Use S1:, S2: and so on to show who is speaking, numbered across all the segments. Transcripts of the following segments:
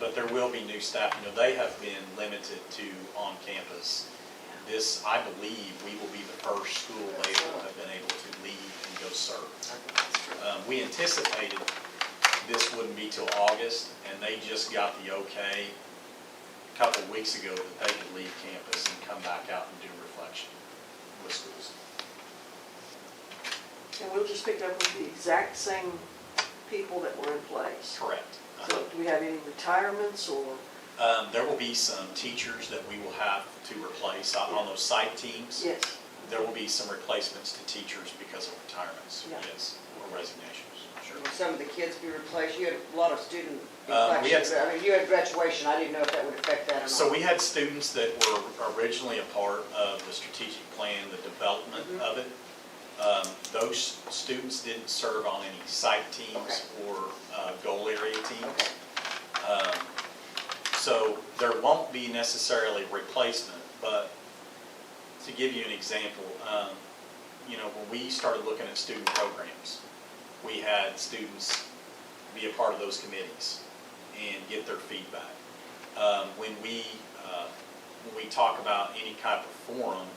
S1: but there will be new staff. You know, they have been limited to on campus. This, I believe, we will be the first school they will have been able to leave and go serve. Um, We anticipated this wouldn't be till August, and they just got the okay a couple of weeks ago that they could leave campus and come back out and do reflection with schools.
S2: And we will just picked up with the exact same people that were in place.
S1: Correct.
S2: So do we have any retirements or,
S1: Um, There will be some teachers that we will have to replace on on those site teams.
S2: yes,
S1: There will be some replacements to teachers because of retirements,
S2: Yeah.
S1: yes, or resignations, sure.
S3: Will some of the kids be replaced? You had a lot of student
S1: Uh, we had-
S3: inflections. I mean, you had graduation, I didn't know if that would affect that or not.
S1: So we had students that were originally a part of the strategic plan, the development of it. Um, Those students didn't serve on any site teams or uh, goal area teams.
S3: Okay.
S1: Um, So there won't be necessarily replacement, but to give you an example, um, you know, when we started looking at student programs, we had students be a part of those committees and get their feedback. Um, When we, uh, when we talk about any type of forum,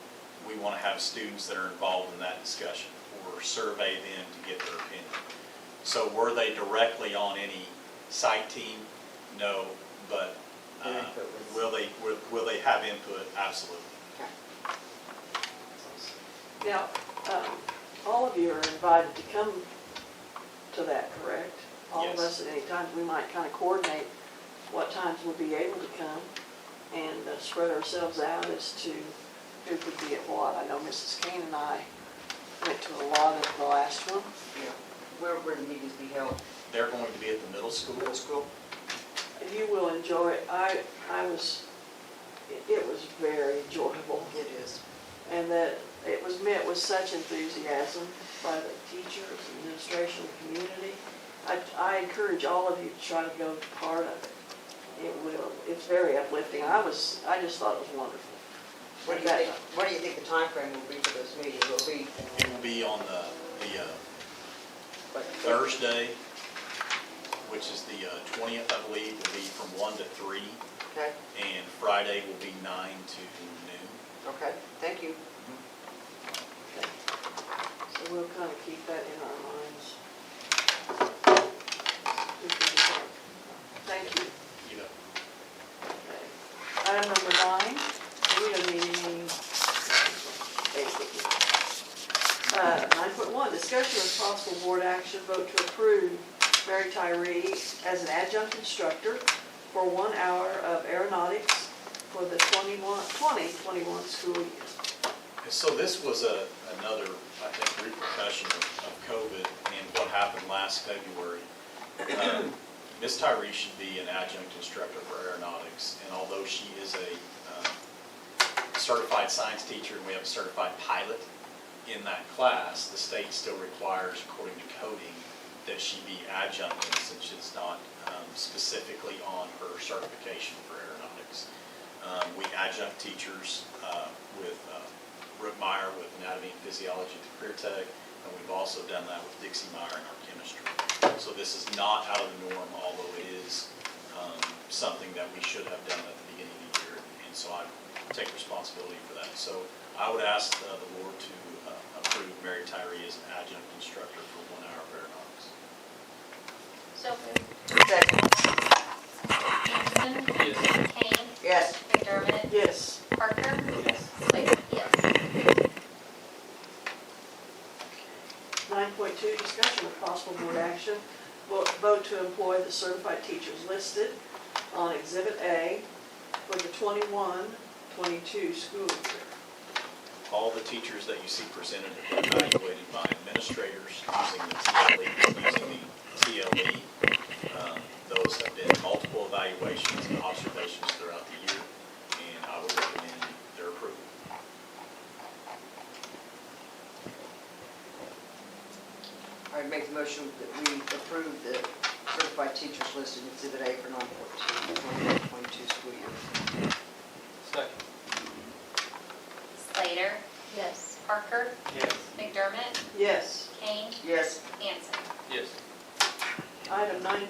S1: we want to have students that are involved in that discussion or survey them to get their opinion. So were they directly on any site team? No, but uh,
S3: Their input was-
S1: will they, will- will they have input? Absolutely.
S3: Okay.
S2: now, um, all of you are invited to come to that, correct? All of
S1: Yes.
S2: us at any time, we might kind of coordinate what times we'll be able to come and uh, spread ourselves out as to who could be at what. I know Mrs. Kane and I went to a lot of the last one.
S3: Yeah. Where would the meetings be held?
S1: They're going to be at the middle school.
S3: Middle school?
S2: You will enjoy it. I, I was, it- it was very enjoyable.
S3: It is.
S2: And that it was met with such enthusiasm by the teachers, administration, community. I, I encourage all of you to try to go to part of it. It will, it's very uplifting. I was, I just thought it was wonderful.
S3: What do you think, what do you think the timeframe will be for those meetings? Will it be
S1: It will be on the, the uh,
S3: like?
S1: Thursday, which is the uh, twentieth, I believe, will be from one to three,
S3: Okay,
S1: and Friday will be nine to noon.
S3: okay, thank you.
S2: So we'll kind of keep that in our minds. We can do that. Thank you.
S1: You know,
S2: Item number nine, we are meeting. Uh, Nine point one, discussion of possible board action, vote to approve Mary Tyree as an adjunct instructor for one hour of aeronautics for the 21 2021 school year.
S1: And so this was a, another, I think, repercussion of of COVID and what happened last February. Um, Ms. Tyree should be an adjunct instructor for aeronautics, and although she is a um, certified science teacher and we have a certified pilot in that class, the state still requires, according to coding, that she be adjunct, since it's not um, specifically on her certification for aeronautics. Um, We adjunct teachers uh, with uh, Brooke Meyer with anatomy and physiology at the Career Tech, and we've also done that with Dixie Meyer in our chemistry. So this is not out of the norm, although it is um, something that we should have done at the beginning of the year, and so I take responsibility for that. So I would ask uh, the board to uh, approve Mary Tyree as an adjunct instructor for one hour of aeronautics.
S4: So moved.
S3: Second.
S4: Anderson? Yes. Kane?
S3: Yes,
S4: McDermott?
S2: Yes,
S4: Parker? Yes. Slater? Yes.
S2: nine point two, discussion of possible board action, vo- vote to employ the certified teachers listed on Exhibit A for the 21 22 school year.
S1: All the teachers that you see presented have been evaluated by administrators using the TLE, using the TLE. Um, Those have been multiple evaluations and observations throughout the year, and I would recommend their approval.
S3: I would make the motion that we approve the certified teachers listed in Exhibit A for 9/14, 2022 school year.
S5: Second.
S4: Slater? Yes. Parker?
S5: Yes.
S4: McDermott?
S2: Yes.
S4: Kane?
S3: Yes.
S4: Anderson?
S5: Yes.
S2: Item nine